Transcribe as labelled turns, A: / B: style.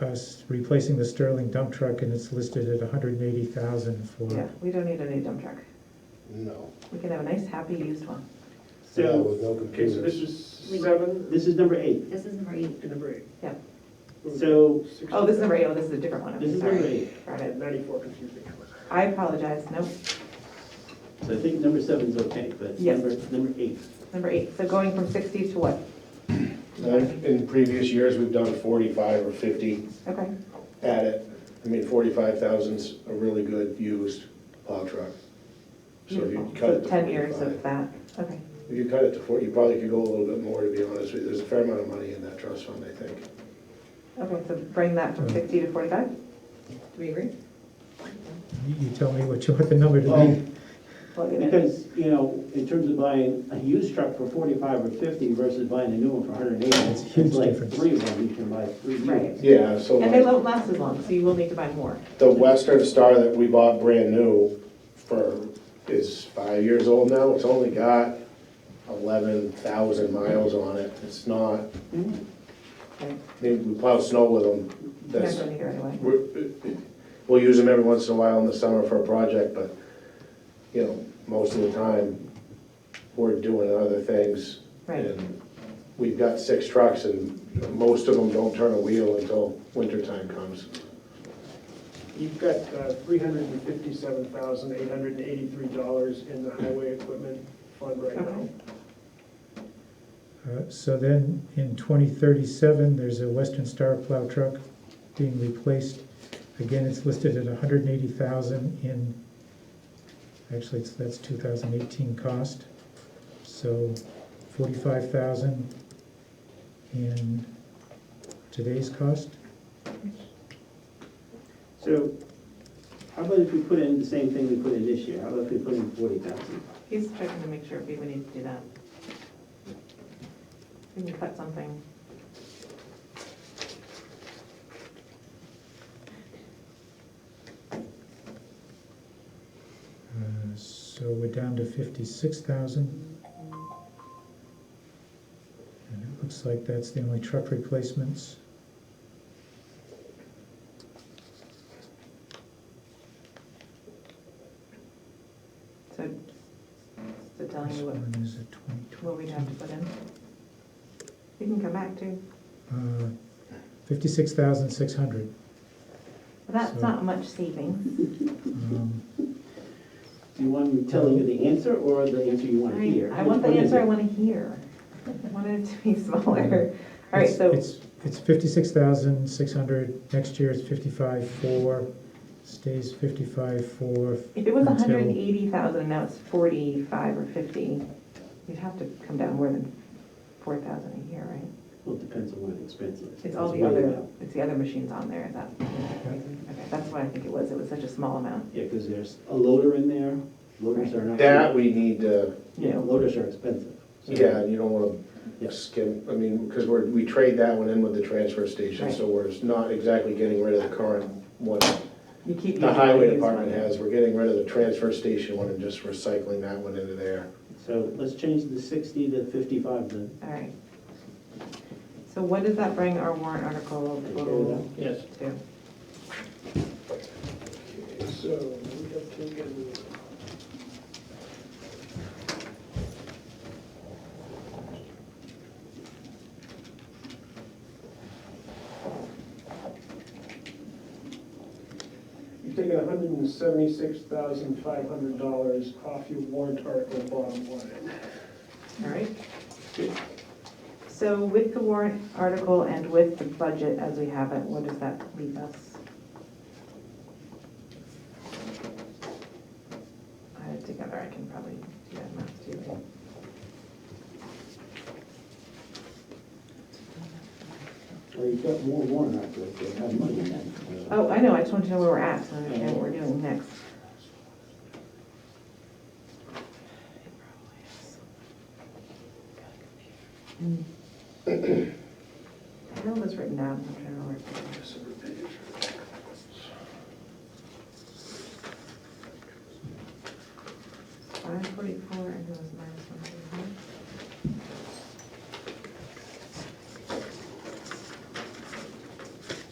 A: us uh, replacing the Sterling dump truck and it's listed at hundred and eighty thousand
B: Yeah,
C: Mm.
A: for,
B: we don't need a new dump truck.
C: No,
B: We can have a nice, happy used one.
C: yeah,
D: So,
C: with no
D: okay, so this
C: computers.
D: is seven,
E: This is number eight.
F: This is number eight.
D: and number eight.
B: Yeah.
E: So,
D: Six-
B: Oh, this is number eight, oh, this is a different one. I'm
E: This is
B: sorry.
E: number eight.
B: Got
D: I had
B: it.
D: Ninety-four confused me.
B: I apologize, no,
E: so I think number seven's okay, but it's
B: Yes.
E: number, number eight.
B: number eight, so going from sixty to what?
C: Like, In previous years, we've done forty-five or fifty
B: Okay,
C: at it. I mean, forty-five thousand's a really good used plow truck. So if you
D: Mm.
B: beautiful,
C: cut it
B: so
C: to
B: ten years of
C: 45
B: that, okay.
C: If you cut it to forty, you probably could go a little bit more, to be honest with you. There's a fair amount of money in that trust fund, I think.
B: Okay, so bring that from sixty to forty-five? Do we agree?
A: you you tell me what you want the number to
E: Well,
A: be.
B: Plug it in.
E: Because, you know, in terms of buying a used truck for forty-five or fifty versus buying a new one for hundred and eighty,
A: It's a huge
E: it's like
A: difference.
E: three of them, you can buy three
B: Right.
E: units.
C: Yeah, so
B: And they
C: like,
B: won't last as long, so you will need to buy more.
C: the Western Star that we bought brand new for, is five years old now. It's only got eleven thousand miles on it. It's not,
B: Okay,
C: I mean, we plow snow with them.
B: You're
C: That's,
B: not going to hear anyway.
C: We're- We'll use them every once in a while in the summer for a project, but, you know, most of the time, we're doing other things.
B: Right.
C: And we've got six trucks, and most of them don't turn a wheel until winter time comes.
D: You've got uh, three hundred and fifty-seven thousand, eight hundred and eighty-three dollars in the highway equipment fund right now.
B: Okay.
A: Uh, So then, in twenty thirty-seven, there's a Western Star plow truck being replaced. Again, it's listed at hundred and eighty thousand in, actually, it's, that's two thousand eighteen cost. So forty-five thousand in today's cost.
E: So, how about if we put in the same thing we put in this year? How about if we put in forty thousand?
B: He's checking to make sure if we would need to do that. We can cut something.
A: Uh, So we're down to fifty-six thousand. And it looks like that's the only truck replacements.
B: So, so telling
A: This
B: you what,
A: one is a twenty twenty.
B: what we'd have to put in. You can come back to,
A: uh, Fifty-six thousand six hundred.
B: that's
A: So-
B: not much savings.
A: Um,
E: Do you want me telling you the answer or the answer you want to
B: I,
E: hear?
B: I want the
E: Which one is
B: answer I
E: it?
B: want to hear. I want it to be smaller. All right, so,
A: It's, it's fifty-six thousand six hundred, next year it's fifty-five four, stays fifty-five four.
B: if it was
A: until-
B: hundred and eighty thousand, now it's forty-five or fifty, you'd have to come down more than four thousand a year, right?
E: Well, it depends on what the expense is.
B: It's all
E: It's
B: the
E: way
B: other,
E: up.
B: it's the other machines on there, that, okay, that's what I think it was, it was such a small amount,
E: Yeah, because there's a loader in there, loaders are not.
C: That we need to,
E: Yeah, loaders are expensive. So-
C: yeah, you don't wanna
E: Yeah.
C: skim, I mean, because we're, we trade that one in with the transfer station,
B: Right.
C: so we're not exactly getting rid of the current one.
B: you keep. using
C: The highway
B: used
C: department
B: one.
C: has, we're getting rid of the transfer station one and just recycling that one into there.
E: So let's change the sixty to fifty-five then.
B: All right. So what does that bring our warrant article total
D: Yes.
B: to?
D: So we have taken. You've taken hundred and seventy-six thousand five hundred dollars off your warrant article bottom line.
B: All right. So with the warrant article and with the budget as we have it, what does that leave us? I have it together, I can probably do that math too. right?
E: Well, you've got more warrant articles, you have money in that.
B: Oh, I know, I just want to know where we're at, so I understand what we're doing next. How was written down, I'm trying to